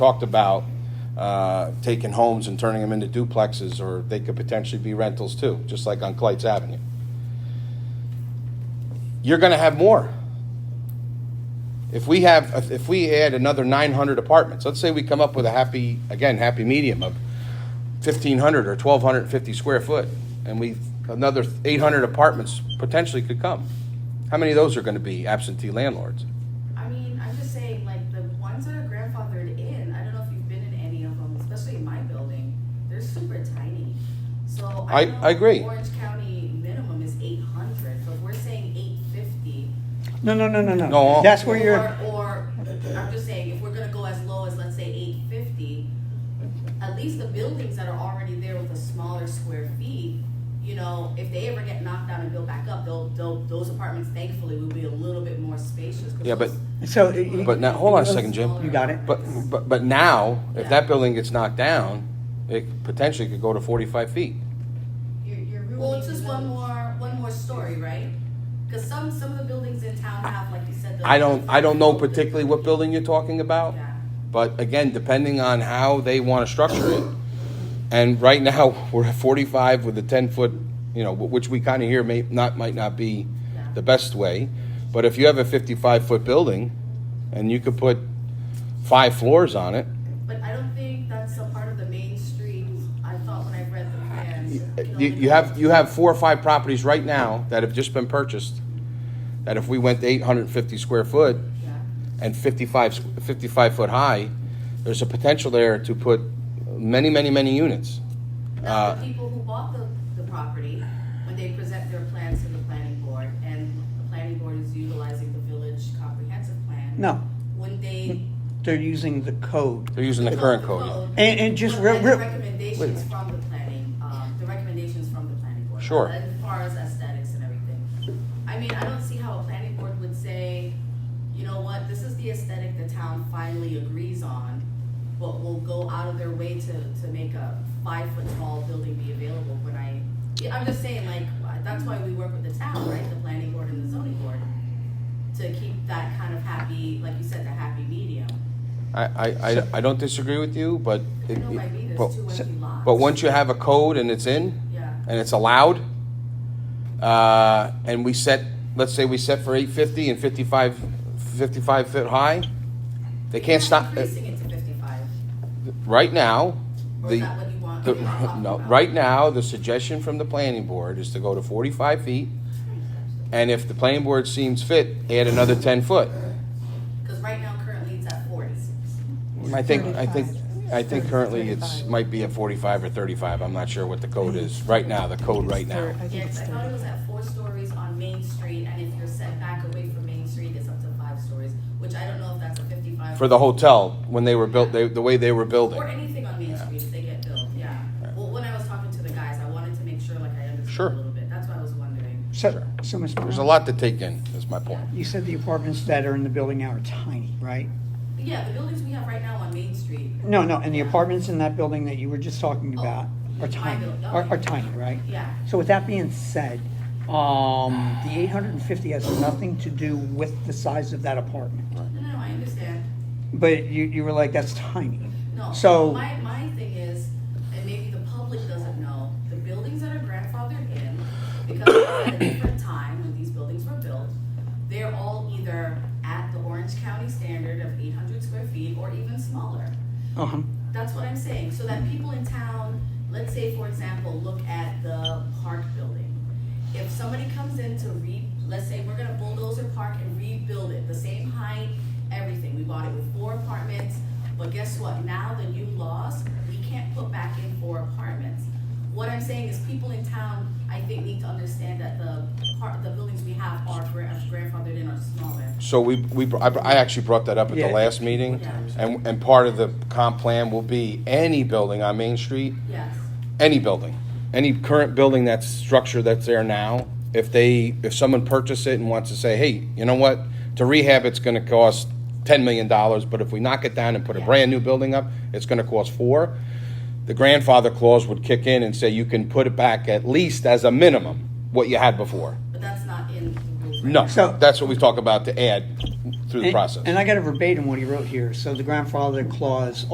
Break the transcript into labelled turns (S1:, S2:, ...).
S1: talked about uh, taking homes and turning them into duplexes, or they could potentially be rentals too, just like on Clyte's Avenue. You're going to have more. If we have, if we add another 900 apartments, let's say we come up with a happy, again, happy medium of 1,500 or 1,250 square foot, and we, another 800 apartments potentially could come. How many of those are going to be absentee landlords?
S2: I mean, I'm just saying, like, the ones that are grandfathered in, I don't know if you've been in any of them, especially in my building, they're super tiny. So
S1: I-
S2: I know
S1: I agree.
S2: Orange County minimum is eight hundred, but we're saying eight fifty.
S3: No, no, no, no, no.
S1: No.
S3: That's where you're,
S2: Or, or, I'm just saying, if we're gonna go as low as, let's say, eight fifty, at least the buildings that are already there with a smaller square feet, you know, if they ever get knocked down and built back up, they'll, they'll, those apartments thankfully will be a little bit more spacious. 'cause
S1: Yeah, but-
S2: those-
S3: so.
S1: But now, hold on a second, Jim.
S3: You got it?
S1: But, but, but now, if that building gets knocked down, it potentially could go to forty-five feet.
S4: You're, you're ruining.
S2: Well, it's just
S4: the
S2: one
S4: village.
S2: more, one more story, right? Because some, some of the buildings in town have, like you said. the-
S1: I don't, I don't know particularly what building you're talking about,
S2: Yeah.
S1: but again, depending on how they wanna structure it. And right now, we're at forty-five with a ten-foot, you know, which we kinda hear may not, might not be
S2: Yeah.
S1: the best way. But if you have a fifty-five-foot building and you could put five floors on it,
S2: But I don't think that's a part of the main street, I thought when I read the plans. know,
S1: You, you have, you have four or five properties right now that have just been purchased, that if we went to eight hundred and fifty square foot
S2: Yeah.
S1: and 55 s- 55 foot high, there's a potential there to put many, many, many units. Uh,
S2: Now, the people who bought the, the property, when they present their plans to the planning board, and the planning board is utilizing the village comprehensive plan.
S3: No,
S2: Wouldn't they?
S3: they're using the code.
S1: They're using the current code.
S3: And- and just
S2: But
S3: real-
S2: then the
S3: real- wait a
S2: Recommendations
S3: minute.
S2: from the planning, um, the recommendations from the planning board.
S1: Sure.
S2: As far as aesthetics and everything. I mean, I don't see how a planning board would say, you know what, this is the aesthetic the town finally agrees on, but will go out of their way to, to make a five-foot-tall building be available when I, yeah, I'm just saying, like, that's why we work with the town, right, the planning board and the zoning board, to keep that kind of happy, like you said, the happy medium.
S1: I, I, I, I don't disagree with you, but,
S2: I
S1: it-
S2: know by me,
S1: but,
S2: there's two empty lots.
S1: but once you have a code and it's in,
S2: Yeah.
S1: and it's allowed, uh, and we set, let's say we set for eight fifty and 55 55 foot high, they can't stop. uh,
S2: Increasing it to fifty-five,
S1: Right now,
S2: or
S1: the,
S2: is that what you want?
S1: the,
S2: You're not talking
S1: no,
S2: about-
S1: right now, the suggestion from the planning board is to go to forty-five feet. And if the planning board seems fit, add another ten foot.
S2: Cause right now currently it's at forty.
S1: I think, I think, I think currently it's, might be at forty-five or thirty-five, I'm not sure what the code is, right now, the code right now.
S5: I think
S2: Yes,
S5: it's
S2: I thought it was at four stories on Main Street, and if you're set back away from Main Street, it's up to five stories, which I don't know if that's a fifty-five.
S1: For the hotel, when they were built, they, the way they were building.
S2: Or anything on Main Street, if they get built, yeah. Well, when I was talking to the guys, I wanted to make sure like I
S1: Sure.
S2: understood a little bit, that's what I was wondering.
S3: So, so, Ms.
S1: There's a
S3: Brown,
S1: lot to take in, is my point.
S3: you said the apartments that are in the building now are tiny, right?
S2: But Yeah, the buildings we have right now on Main Street,
S3: No, no, and the apartments in that building that you were just talking
S2: Oh,
S3: about are
S2: my
S3: tiny,
S2: building,
S3: are,
S2: okay.
S3: are tiny, right?
S2: yeah.
S3: So with that being said, um, the eight hundred and fifty has nothing to do with the size of that apartment.
S2: No, no, no, I understand.
S3: But you, you were like, that's tiny.
S2: No.
S3: So-
S2: My, my thing is, and maybe the public doesn't know, the buildings that are grandfathered in, because it was at a different time when these buildings were built, they're all either at the Orange County standard of eight hundred square feet or even smaller.
S3: Uh-huh.
S2: That's what I'm saying, so that people in town, let's say, for example, look at the park building. If somebody comes in to re, let's say, we're gonna bulldozer park and rebuild it, the same height, everything, we bought it with four apartments, but guess what, now the new laws, we can't put back in four apartments. What I'm saying is, people in town, I think, need to understand that the part, the buildings we have are gra- grandfathered in are smaller.
S1: So we, we, br- I br- I actually brought that up at the
S3: Yeah.
S1: last meeting,
S2: Yeah.
S1: and, and part of the comp plan will be any building on Main Street
S2: Yes,
S1: any building, any current building that's structure that's there now, if they, if someone purchased it and wants to say, hey, you know what, to rehab, it's gonna cost ten million dollars, but if we knock it down and put a brand-new building up, it's gonna cost four. The grandfather clause would kick in and say you can put it back at least as a minimum, what you had before.
S2: but that's not in the rules. right
S1: No,
S3: So-
S1: that's what we talk about to add through the
S3: And-
S1: process.
S3: And I got a verbatim what he wrote here. So the grandfather clause